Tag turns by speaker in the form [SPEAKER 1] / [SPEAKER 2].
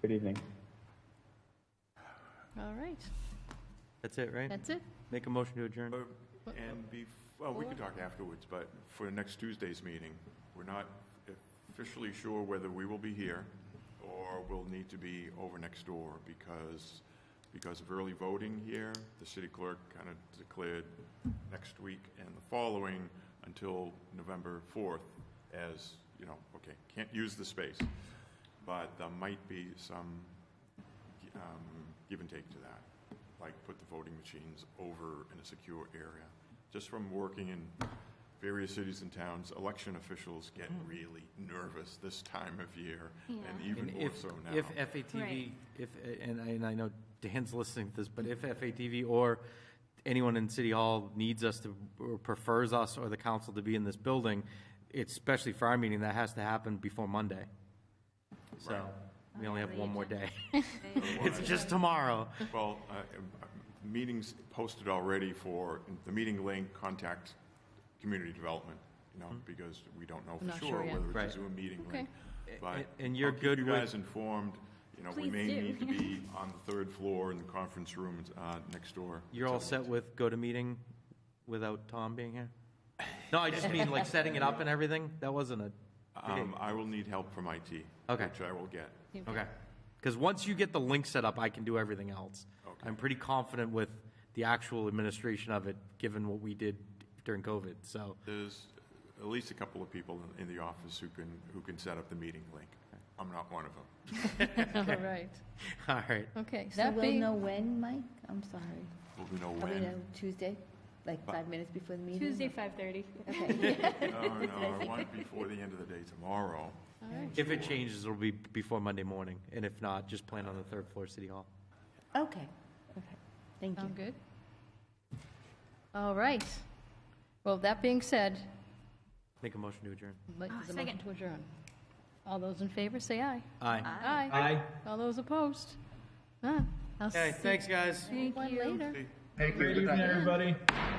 [SPEAKER 1] Good evening.
[SPEAKER 2] All right,
[SPEAKER 3] That's it, right?
[SPEAKER 2] that's it.
[SPEAKER 3] Make a motion to adjourn.
[SPEAKER 4] Uh, And be, well, we can talk afterwards, but for next Tuesday's meeting, we're not officially sure whether we will be here or we'll need to be over next door because, because of early voting here, the city clerk kind of declared next week and the following until November 4th as, you know, okay, can't use the space. But there might be some um, give and take to that, like put the voting machines over in a secure area. Just from working in various cities and towns, election officials get really nervous this time of year, and
[SPEAKER 2] Yeah.
[SPEAKER 3] And
[SPEAKER 4] even more
[SPEAKER 3] if-
[SPEAKER 4] so now.
[SPEAKER 3] If FATV,
[SPEAKER 2] Right.
[SPEAKER 3] if, and I, and I know Dan's listening to this, but if FATV or anyone in City Hall needs us to, or prefers us or the council to be in this building, it's especially for our meeting, that has to happen before Monday. So, we only have one more day. It's just tomorrow.
[SPEAKER 4] Well, uh, um, uh, meetings posted already for the meeting link, contact community development, you know, because we don't know
[SPEAKER 2] Not
[SPEAKER 4] for
[SPEAKER 2] sure
[SPEAKER 4] sure
[SPEAKER 2] yet.
[SPEAKER 4] whether
[SPEAKER 3] Hmm. Right.
[SPEAKER 4] it's a Zoom meeting
[SPEAKER 2] Okay.
[SPEAKER 4] link. But
[SPEAKER 3] A- and you're
[SPEAKER 4] I'll keep
[SPEAKER 3] good
[SPEAKER 4] you
[SPEAKER 3] with-
[SPEAKER 4] guys informed, you know, we
[SPEAKER 2] Please
[SPEAKER 4] may
[SPEAKER 2] do.
[SPEAKER 4] need to be on the third floor in the conference room uh, next door.
[SPEAKER 3] You're all set with go-to-meeting without Tom being here? No, I just mean like setting it up and everything? That wasn't a.
[SPEAKER 4] Um, I will need help from IT.
[SPEAKER 3] Okay.
[SPEAKER 4] Which I will get.
[SPEAKER 3] Okay. Because once you get the link set up, I can do everything else.
[SPEAKER 4] Okay.
[SPEAKER 3] I'm pretty confident with the actual administration of it, given what we did during COVID, so.
[SPEAKER 4] There's at least a couple of people in, in the office who can, who can set up the meeting link. I'm not one of them.
[SPEAKER 2] All right,
[SPEAKER 3] All right.
[SPEAKER 2] okay.
[SPEAKER 5] So
[SPEAKER 2] That
[SPEAKER 5] we'll
[SPEAKER 2] being
[SPEAKER 5] know when, Mike? I'm sorry.
[SPEAKER 4] We'll know
[SPEAKER 2] Oh,
[SPEAKER 5] Are we know
[SPEAKER 4] when.
[SPEAKER 5] Tuesday? Like five minutes before the meeting?
[SPEAKER 6] Tuesday, 5:30.
[SPEAKER 5] Okay.
[SPEAKER 4] No, Oh, no, I want before the end of the day tomorrow.
[SPEAKER 2] All right,
[SPEAKER 3] If it changes, it'll be before Monday morning, and if not, just plan on the third floor, City Hall.
[SPEAKER 5] Okay, okay. Thank you.
[SPEAKER 2] sound good? All right. Well, that being said,
[SPEAKER 3] Make a motion to adjourn.
[SPEAKER 2] like, there's a motion to adjourn. All those in favor, say aye.
[SPEAKER 3] Aye.
[SPEAKER 2] Aye.
[SPEAKER 3] Aye.
[SPEAKER 2] All those opposed? None. I'll
[SPEAKER 3] Okay,
[SPEAKER 2] see
[SPEAKER 3] thanks, guys.
[SPEAKER 2] you one later.
[SPEAKER 7] Hey, good evening, everybody.
[SPEAKER 4] Good